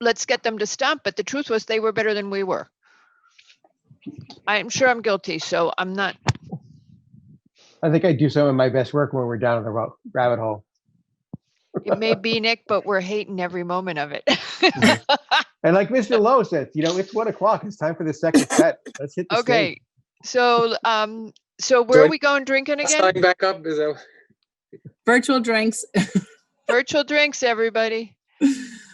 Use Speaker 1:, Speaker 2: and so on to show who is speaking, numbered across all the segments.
Speaker 1: let's get them to stop. But the truth was they were better than we were. I'm sure I'm guilty, so I'm not,
Speaker 2: I think I do some of my best work when we're down in the ro- rabbit hole.
Speaker 1: it may be Nick, but we're hating every moment of it.
Speaker 2: And like Mr. Lowe said, you know, it's one o'clock. It's time for the second set. Let's hit the stage.
Speaker 1: Okay, so, um, so where
Speaker 3: I-
Speaker 1: are we going drinking again?
Speaker 3: Sign back up, is that?
Speaker 4: Virtual drinks.
Speaker 1: Virtual drinks, everybody.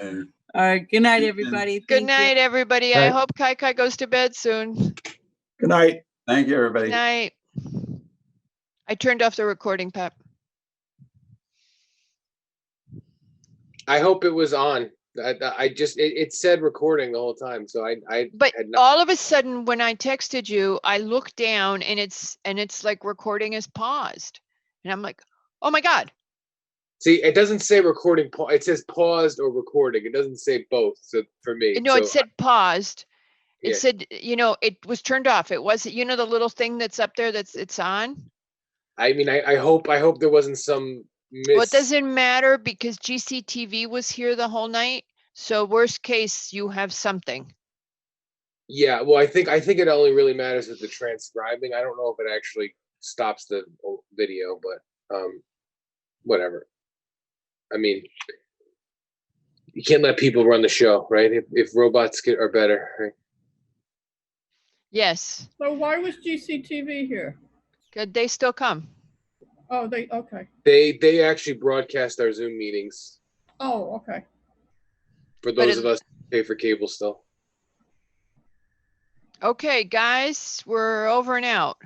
Speaker 5: And
Speaker 4: All right. Good night,
Speaker 5: Good night.
Speaker 4: everybody.
Speaker 1: Good
Speaker 4: Thank you.
Speaker 1: night, everybody. I
Speaker 2: Right.
Speaker 1: hope Kai Kai goes to bed soon.
Speaker 6: Good night.
Speaker 5: thank you, everybody.
Speaker 1: Night. I turned off the recording, Pep.
Speaker 3: I hope it was on. I, I- I just, it, it said recording the whole time, so I, I.
Speaker 1: But
Speaker 3: had no-
Speaker 1: all of a sudden, when I texted you, I looked down and it's, and it's like recording is paused. And I'm like, oh my God.
Speaker 3: See, it doesn't say recording, pa- it says paused or recording. It doesn't say both, so for me.
Speaker 1: No, it
Speaker 3: so- uh
Speaker 1: said paused.
Speaker 3: Yeah.
Speaker 1: It said, you know, it was turned off. It wasn't, you know, the little thing that's up there that's, it's on.
Speaker 3: I mean, I, I hope, I hope there wasn't some
Speaker 1: Well, it
Speaker 3: miss.
Speaker 1: doesn't matter because GCTV was here the whole night. So worst case, you have something.
Speaker 3: Yeah, well, I think, I think it only really matters with the transcribing. I don't know if it actually stops the o- video, but, um, whatever. I mean, you can't let people run the show, right? If, if robots get, are better, right?
Speaker 1: Yes.
Speaker 7: So why was GCTV here?
Speaker 1: Could they still come?
Speaker 7: Oh, they, okay.
Speaker 3: They they actually broadcast our Zoom meetings
Speaker 7: Oh, okay.
Speaker 3: for
Speaker 1: But
Speaker 3: those
Speaker 1: it-
Speaker 3: of us who pay for cable still.
Speaker 1: Okay, guys, we're over and out.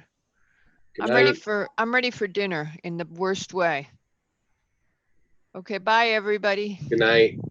Speaker 3: Good
Speaker 1: I'm ready
Speaker 3: night.
Speaker 1: for, I'm ready for dinner in the worst way. Okay, bye, everybody.
Speaker 3: Good night.